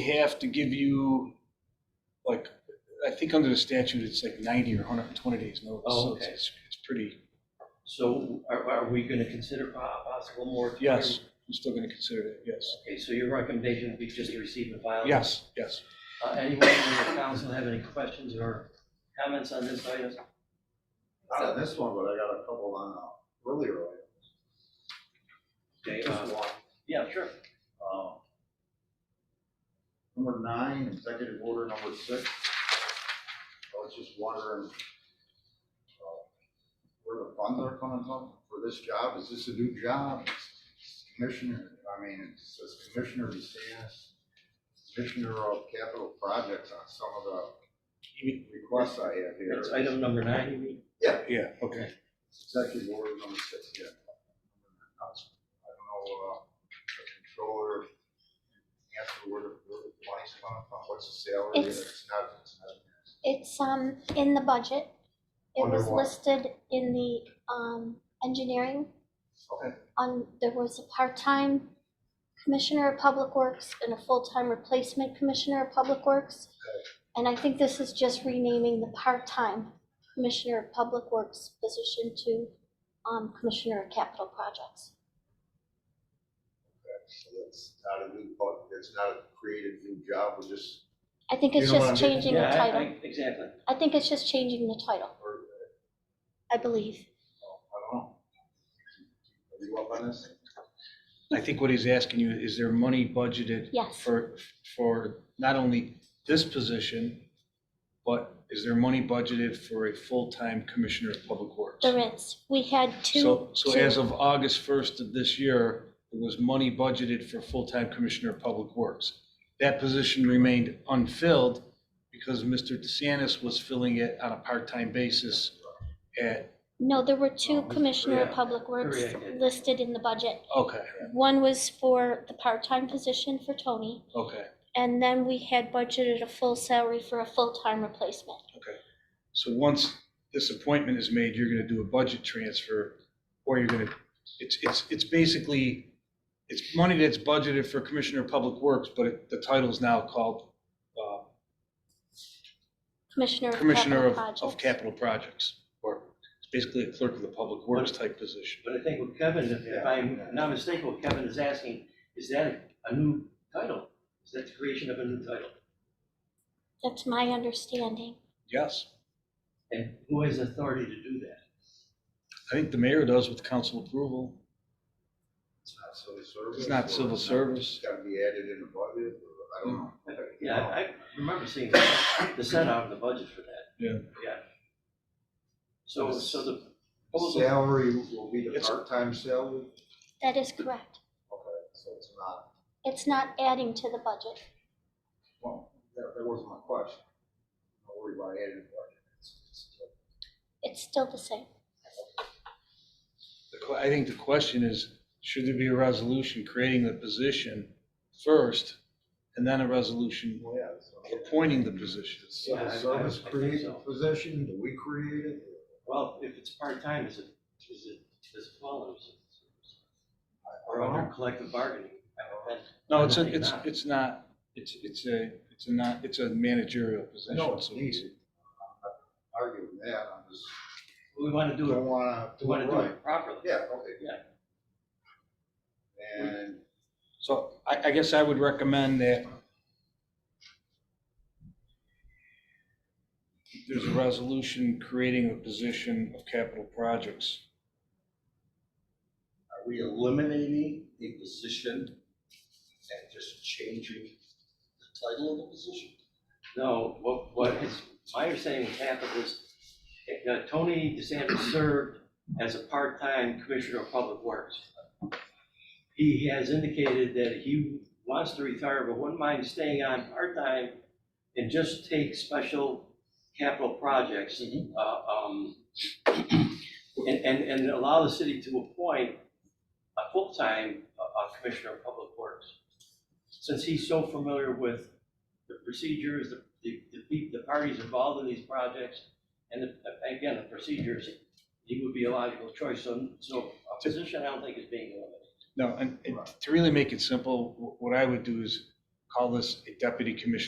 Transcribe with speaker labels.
Speaker 1: have to give you, like, I think under the statute, it's like 90 or 120 days notice.
Speaker 2: Oh,
Speaker 1: so it's-
Speaker 2: okay.
Speaker 1: It's it's pretty,
Speaker 2: So are, are we gonna consider po- possible more?
Speaker 1: yes, I'm still going to consider it, yes.
Speaker 2: Okay, so your recommendation would be just to receive and file?
Speaker 1: Yes, yes.
Speaker 2: Uh, Anyone in the council have any questions or comments on this item?
Speaker 3: Not on this one, but I got a couple on uh, earlier items.
Speaker 2: Okay, uh,
Speaker 3: Just one.
Speaker 2: Yeah, sure.
Speaker 3: Um, Number nine, executive order number six. I was just wondering uh, where the funds are coming from for this job. Is this a new job? It's Commissioner, I mean, it says Commissioner DeSantis, Commissioner of Capital Projects on some of the requests I have here.
Speaker 2: It's item number nine, you mean?
Speaker 1: Yeah, okay.
Speaker 3: Executive order number six, yeah. I don't know, uh, the controller, answer where the, where the money's coming from, what's the salary, and
Speaker 4: It's-
Speaker 3: it's not, it's not.
Speaker 4: It's um in the budget. It
Speaker 3: Under
Speaker 4: was
Speaker 3: what?
Speaker 4: listed in the um engineering
Speaker 3: Okay,
Speaker 4: on, there was a part-time commissioner of public works and a full-time replacement commissioner of public works. And I think this is just renaming the part-time commissioner of public works position to um commissioner of capital projects.
Speaker 3: okay, so that's not a new, bu- it's not a created new job, we're just,
Speaker 4: I think
Speaker 3: You
Speaker 4: it's
Speaker 3: know what
Speaker 4: just
Speaker 3: I'm getting-
Speaker 4: changing the
Speaker 2: Yeah, I-
Speaker 4: title.
Speaker 2: I- Exactly.
Speaker 4: I think it's just changing the title,
Speaker 3: or,
Speaker 4: I believe.
Speaker 3: uh, I don't know. Are you up on this?
Speaker 1: I think what he's asking you, is there money budgeted
Speaker 4: Yes,
Speaker 1: for, for not only this position, but is there money budgeted for a full-time commissioner of public works?
Speaker 4: there is. We had two.
Speaker 1: So, so
Speaker 4: two-
Speaker 1: as of August 1st of this year, there was money budgeted for full-time Commissioner of Public Works. That position remained unfilled because Mr. DeSantis was filling it on a part-time basis at,
Speaker 4: No, there were two
Speaker 3: Oh,
Speaker 4: Commissioner of
Speaker 2: yeah,
Speaker 4: Public Works
Speaker 2: correct.
Speaker 4: listed in the budget.
Speaker 1: okay,
Speaker 4: One was for the part-time position for Tony,
Speaker 1: okay.
Speaker 4: and then we had budgeted a full salary for a full-time replacement.
Speaker 1: So once this appointment is made, you're gonna do a budget transfer, or you're gonna, it's, it's, it's basically, it's money that's budgeted for Commissioner of Public Works, but it- the title's now called uh,
Speaker 4: Commissioner of
Speaker 1: Commissioner
Speaker 4: Capital
Speaker 1: of, of
Speaker 4: Projects.
Speaker 1: Capital Projects, or it's basically a clerk of the public works type position.
Speaker 2: But I think what Kevin, if- if I'm not mistaken, what Kevin is asking, is that a- a new title? Is that the creation of a new title?
Speaker 4: That's my understanding.
Speaker 1: Yes,
Speaker 2: And who has authority to do that?
Speaker 1: I think the mayor does with council approval.
Speaker 3: It's not civil service.
Speaker 1: It's not
Speaker 3: or
Speaker 1: civil
Speaker 3: it's not-
Speaker 1: service.
Speaker 3: It's gotta be added in the budget, or, I don't know.
Speaker 2: Yeah, I I remember seeing the set out of the budget for that.
Speaker 1: Yeah.
Speaker 2: Yeah. So, so the proposal,
Speaker 3: Salary will be the
Speaker 1: It's-
Speaker 3: part-time salary?
Speaker 4: That is correct.
Speaker 3: Okay, so it's not,
Speaker 4: It's not adding to the budget.
Speaker 3: well, that, that wasn't my question. Don't worry about adding the budget. It's- it's-
Speaker 4: It's still the same.
Speaker 1: The que- I think the question is, should there be a resolution creating the position first, and then a resolution
Speaker 3: Well, yeah, so-
Speaker 1: appointing the position?
Speaker 2: Yeah, I-
Speaker 3: Civil
Speaker 2: I-
Speaker 3: service
Speaker 2: I think
Speaker 3: created
Speaker 2: so.
Speaker 3: the position, do we create it?
Speaker 2: well, if it's part-time, is it, is it as follows?
Speaker 3: I- I
Speaker 2: Or
Speaker 3: don't
Speaker 2: under
Speaker 3: know.
Speaker 2: collective bargaining? And-
Speaker 1: No, it's, a-
Speaker 2: I think
Speaker 1: it's,
Speaker 2: not.
Speaker 1: it's not, it's, it's a, it's a not, it's a managerial
Speaker 3: I
Speaker 1: position.
Speaker 3: know it's
Speaker 1: so-
Speaker 3: needed. I'm not arguing that, I'm just,
Speaker 2: We want to do
Speaker 3: don't
Speaker 2: it,
Speaker 3: wanna
Speaker 2: we
Speaker 3: do
Speaker 2: want
Speaker 3: it
Speaker 2: to do
Speaker 3: right.
Speaker 2: it properly.
Speaker 3: Yeah, okay.
Speaker 2: Yeah.
Speaker 3: And
Speaker 1: So I, I guess I would recommend that there's a resolution creating a position of capital projects.
Speaker 5: Are we eliminating the position and just changing the title of the position?
Speaker 2: No, what, what is, my understanding what happened is, uh, Tony DeSantis served as a part-time commissioner of public works. He has indicated that he wants to retire, but wouldn't mind staying on part-time and just take special capital projects. uh, um, And, and, and allow the city to appoint a full-time uh, uh, commissioner of public works. Since he's so familiar with the procedures, the, the, the pe- the parties involved in these projects, and the, again, the procedures, he would be a logical choice, so, so a position I don't think is being eliminated.
Speaker 1: No, and, and to really make it simple, wh- what I would do is call this a deputy commissioner